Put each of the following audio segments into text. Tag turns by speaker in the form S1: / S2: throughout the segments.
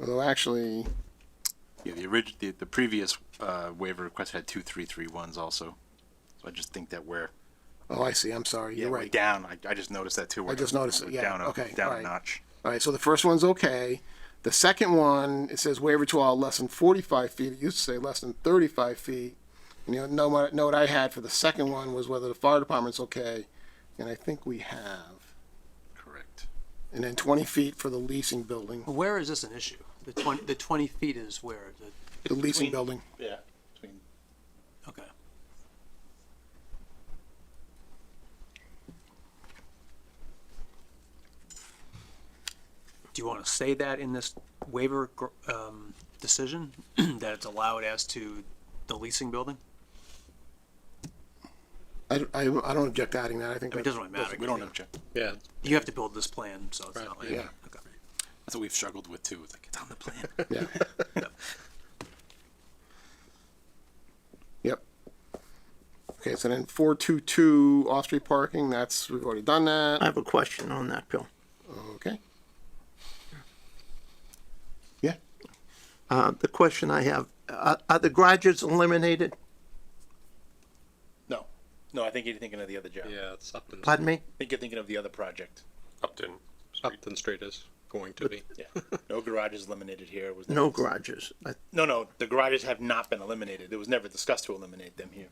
S1: Although actually,
S2: Yeah, the orig, the, the previous, uh, waiver request had two, three, three ones also. So I just think that we're,
S1: oh, I see, I'm sorry,
S2: yeah,
S1: you're
S2: we're
S1: right.
S2: down. I, I just noticed that too. We're-
S1: just noticed it,
S2: we're
S1: yeah,
S2: down a-
S1: okay, all
S2: Down a
S1: right.
S2: notch.
S1: All right, so the first one's okay. The second one, it says waiver to all less than forty-five feet. It used to say less than thirty-five feet. And you know, know what, note I had for the second one was whether the fire department's okay, and I think we have.
S2: Correct.
S1: And then twenty feet for the leasing building,
S3: Where is this an issue? The twenty, the twenty feet is where, the,
S1: the leasing
S2: Between-
S1: building.
S2: Yeah. between-
S3: okay. Do you wanna say that in this waiver, gr- um, decision, that it's allowed as to the leasing building?
S1: I, I, I don't object to adding that. I think.
S3: I mean,
S1: that-
S3: it doesn't really matter.
S2: We don't object.
S4: Yeah,
S3: You have to build this plan, so it's not like,
S1: yeah.
S3: okay.
S2: That's what we've struggled with too. It's like, it's on the plan.
S1: Yeah. Yep. Okay, so then four two two off-street parking, that's, we've already done
S4: I
S1: that,
S4: have a question on that, Bill.
S1: okay. Yeah,
S4: Uh, the question I have, uh, are the garages eliminated?
S2: No, no, I think you're thinking of the other job.
S5: Yeah, it's Upton.
S4: Pardon me?
S2: I think you're thinking of the other project.
S5: Upton. Upton Street is going to be.
S2: Yeah. No garages eliminated here. It Was
S4: No
S2: never-
S4: garages. I-
S2: No, no, the garages have not been eliminated. It was never discussed to eliminate them here.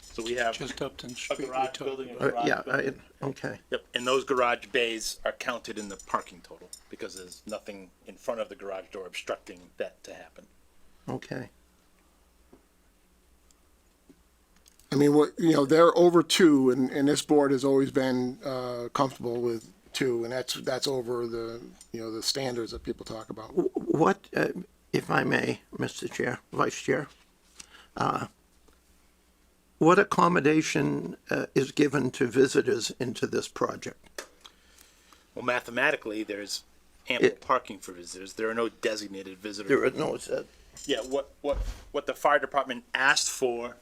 S2: So we have
S6: Just Upton
S2: a
S6: Street. we
S2: garage
S6: talked
S2: building, a
S4: uh,
S2: garage
S4: Yeah,
S2: building.
S4: I, okay.
S2: Yep, and those garage bays are counted in the parking total because there's nothing in front of the garage door obstructing that to happen.
S4: Okay.
S1: I mean, what, you know, they're over two, and, and this board has always been, uh, comfortable with two, and that's, that's over the, you know, the standards that people talk about.
S4: Wh- What, uh, if I may, Mr. Chair, Vice Chair, uh, what accommodation uh, is given to visitors into this project?
S2: Well, mathematically, there's ample
S4: It-
S2: parking for visitors. There are no designated visitors.
S4: There are no, uh,
S2: Yeah, what, what, what the fire department asked for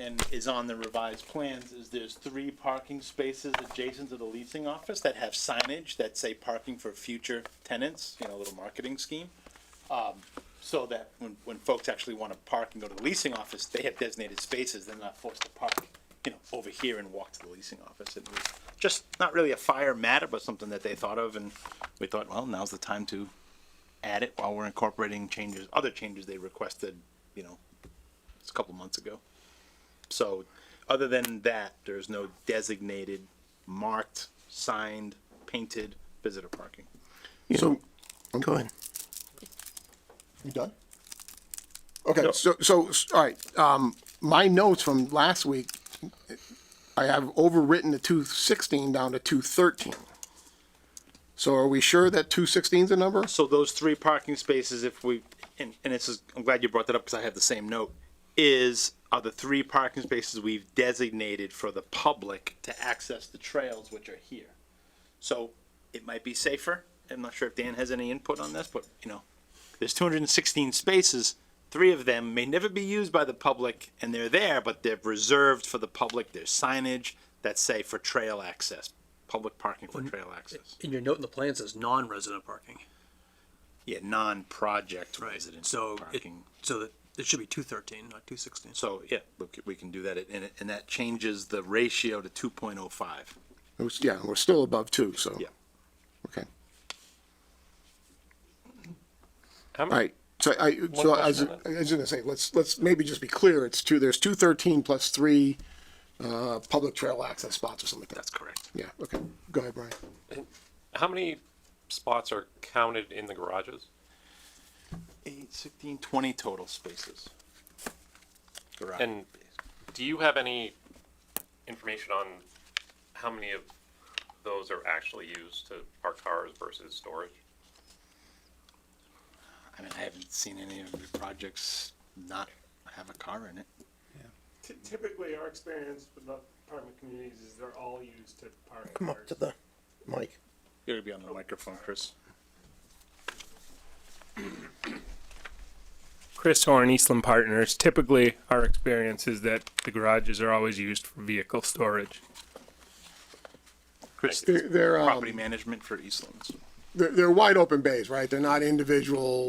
S2: and is on the revised plans is there's three parking spaces adjacent to the leasing office that have signage that say parking for future tenants, you know, a little marketing scheme. Um, So that when, when folks actually want to park and go to the leasing office, they have designated spaces, they're not forced to park, you know, over here and walk to the leasing office. It was just not really a fire matter, but something that they thought of and we thought, well, now's the time to add it while we're incorporating changes, other changes they requested, you know, it's a couple months ago. So, other than that, there's no designated, marked, signed, painted visitor parking.
S1: So,
S4: go ahead.
S1: You done? Okay, so, so, s- all right, um, my notes from last week, I have overwritten the two sixteen down to two thirteen. So are we sure that two sixteen's a number?
S2: So those three parking spaces, if we, and, and this is, I'm glad you brought that up because I have the same note, is, are the three parking spaces we've designated for the public to access the trails which are here. So it might be safer. I'm not sure if Dan has any input on this, but you know, there's 216 spaces. Three of them may never be used by the public and they're there, but they're reserved for the public. There's signage that say for trail access, public parking for trail access.
S3: And your note in the plan says non-resident parking.
S2: Yeah, non-project
S3: Right,
S2: resident
S3: so it,
S2: parking.
S3: so that, it should be two thirteen, not two sixteen.
S2: So, yeah, we c- we can do that, and, it- and that changes the ratio to two point oh five.
S1: It was- Yeah, we're still above two, so.
S2: Yeah.
S1: Okay,
S5: How
S1: all
S5: many,
S1: right, so I, so I was,
S5: question
S1: I was gonna say, let's, let's maybe just be clear, it's two, there's two thirteen plus three, uh, public trail access spots or something like that.
S2: That's correct.
S1: Yeah, okay, go ahead, Brian.
S5: how many spots are counted in the garages?
S2: Eight, sixteen, twenty total spaces. Correct.
S5: And do you have any information on how many of those are actually used to park cars versus storage?
S2: I mean, I haven't seen any of the projects not have a car in it.
S7: Ty- Typically, our experience with the apartment communities is they're all used to park
S4: Come up
S7: cars.
S4: to the mic.
S2: You gotta be on the microphone, Chris.
S8: Chris Horn, Eastland Partners. Typically, our experience is that the garages are always used for vehicle storage.
S2: Chris,
S1: They're, they're, um,
S2: property management for Eastlands.
S1: they're, they're wide open bays, right? They're not individual